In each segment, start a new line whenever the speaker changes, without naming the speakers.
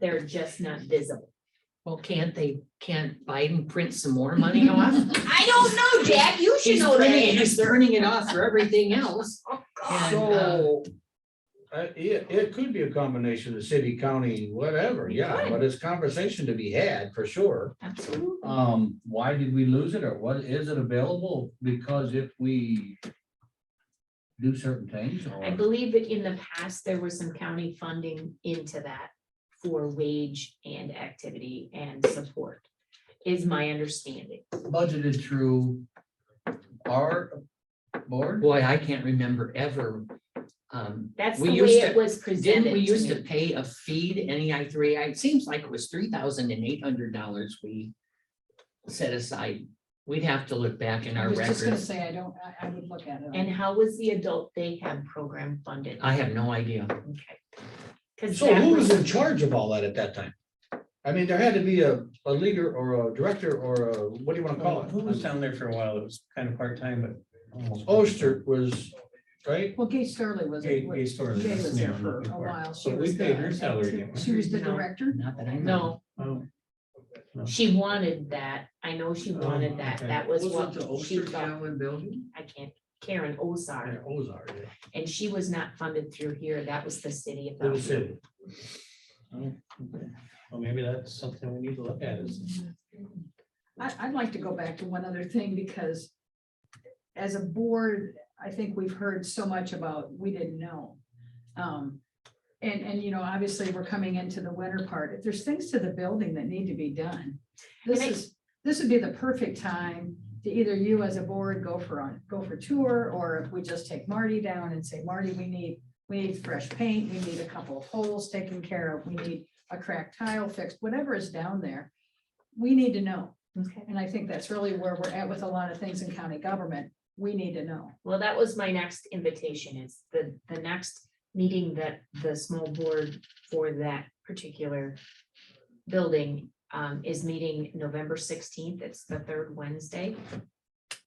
they're just not visible.
Well, can't they, can't Biden print some more money off?
I don't know, Jack, you should
He's
know
printing,
that. Oh,
he's turning it off for everything else. And, uh,
So, uh, it, it could be a combination of city, county, whatever, yeah,
Right.
but it's conversation to be had for sure.
Absolutely.
Um, why did we lose it or what, is it available? Because if we do certain things
I
or,
believe that in the past, there was some county funding into that for wage and activity and support, is my understanding.
budgeted through our board?
Boy, I can't remember ever. Um,
That's the
We
way
used
it
to-
was presented
didn't we used
to
to
me.
pay a fee to NEI three? It seems like it was three thousand and eight hundred dollars we set aside. We'd have to look back in
I
our
was just gonna
records.
say, I don't, I, I would look at it.
And how was the adult daycare program funded?
I have no idea.
Okay. Cause
So
that
who was
was,
in charge of all that at that time? I mean, there had to be a, a leader or a director or a, what do you wanna call
Who was
it?
down there for a while? It was kind of part-time, but. almost-
Oster was, right?
Well, Gay Sterling was.
Gay- Gay Sterling,
Jay
that's the
was there
name I'm
for
looking
a
for.
while.
So
She
we
was
paid
the-
her salary, didn't we?
She was the
No.
director.
Not that I know.
no,
Oh,
she wanted that. I know she wanted that.
okay.
That was what she thought.
building?
I can't, Karen Osar,
Ozar, yeah.
and she was not funded through here. That was the city of
It was
Bellevue.
him.
Oh, okay. Well, maybe that's something we need to look at is.
I, I'd like to go back to one other thing because as a board, I think we've heard so much about, we didn't know. Um, and, and you know, obviously we're coming into the winter part. If there's things to the building that need to be done, this
And I-
is, this would be the perfect time to either you as a board go for on, go for tour, or if we just take Marty down and say, Marty, we need, we need fresh paint, we need a couple of holes taken care of, we need a cracked tile fixed, whatever is down there. We need to know.
Okay.
And I think that's really where we're at with a lot of things in county government. We need to know.
Well, that was my next invitation is the, the next meeting that the small board for that particular building um, is meeting November sixteenth. It's the third Wednesday. Is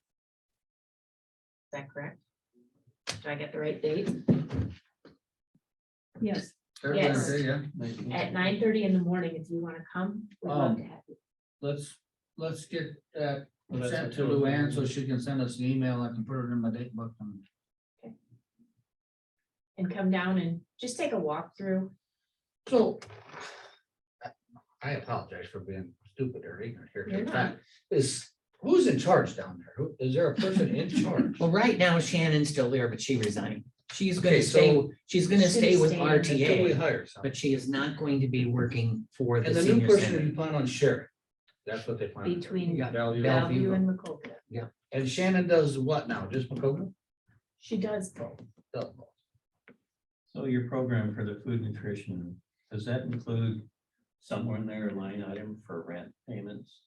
that correct? Do I get the right date?
Yes.
Yes.
Yeah.
At nine thirty in the morning, if you want to come, we'd love to have you.
Let's, let's get that
Well, that's
sent
what
to
Joe-
Luann so she can send us an email. I can put it in my date book and
and come down and just take a walk through.
So. I apologize for being stupid or ignorant here.
You're not.
Is, who's in charge down there? Who- Is there a person in charge?
Well, right now Shannon's still there, but she resigned. She's
Okay,
gonna stay,
so-
she's gonna
She's
stay with
staying
Until we
RTA,
hire someone.
but she is not going to be working for the
And the new
senior
person
center.
you plan on sharing. That's what they plan. on doing.
Between
Yeah.
Value.
Bellevue and Macocota.
And Shannon does what now? Just Macocota?
She does both.
So your program for the food nutrition, does that include somewhere in there a line item for rent payments?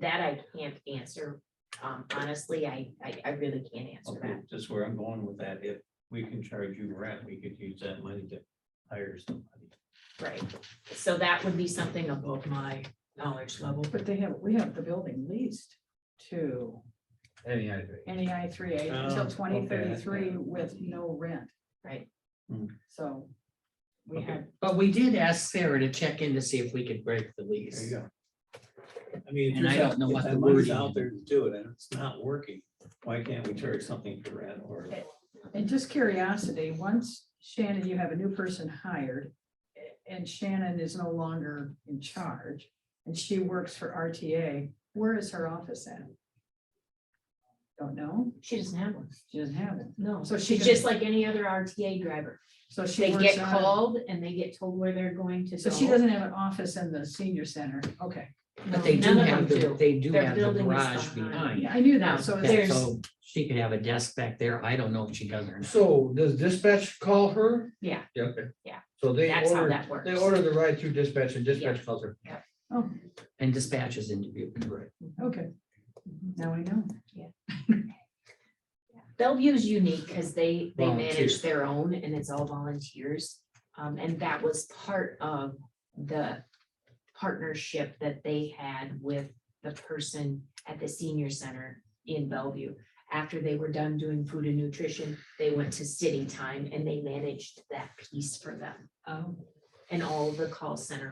That I can't answer. Um, honestly, I, I, I really can't answer
Okay,
that.
just where I'm going with that, if we can charge you rent, we could use that money to hire somebody.
Right. So that would be something above my knowledge level.
But they have, we have the building leased to
Any idea?
NEI three A
Oh,
until
okay.
twenty thirty-three with no rent.
Right.
Hmm.
So we
Okay.
have,
But we did ask Sarah to check in to see if we could break the
There you
lease.
go. I mean. if
And I
there's-
don't know
if
what
that
the
money's
wording
Out
is.
there to do it and it's not working. Why can't we charge something for rent or?
and just curiosity, once Shannon, you have a new person hired and Shannon is no longer in charge and she works for RTA, where is her office at? Don't know.
She doesn't have one.
She doesn't have it.
No.
So she
She's
can-
just like any other RTA driver.
So she
They
works
get
out of-
called and they get told where they're going to
So she
go.
doesn't have an office in the senior center. Okay.
But they
No,
do
none of
have,
them
the
do.
they do
Their
have the
building is
garage
behind.
behind.
Yeah, I knew
Now,
that. So
Yeah,
it's,
So she could have a desk back there. I don't know if she does or not.
So does dispatch call her?
Yeah.
Yeah, okay.
Yeah.
So they
That's how
order,
that works.
they order the ride through dispatch and
Yeah.
dispatch calls her.
oh,
And dispatches in Dubuque.
Right.
okay. Now I know.
Bellevue's unique because they, they manage
Volunteers.
their own and it's all volunteers. Um, and that was part of the partnership that they had with the person at the senior center in Bellevue. After they were done doing food and nutrition, they went to city time and they managed that piece for them
Oh.
and all the call center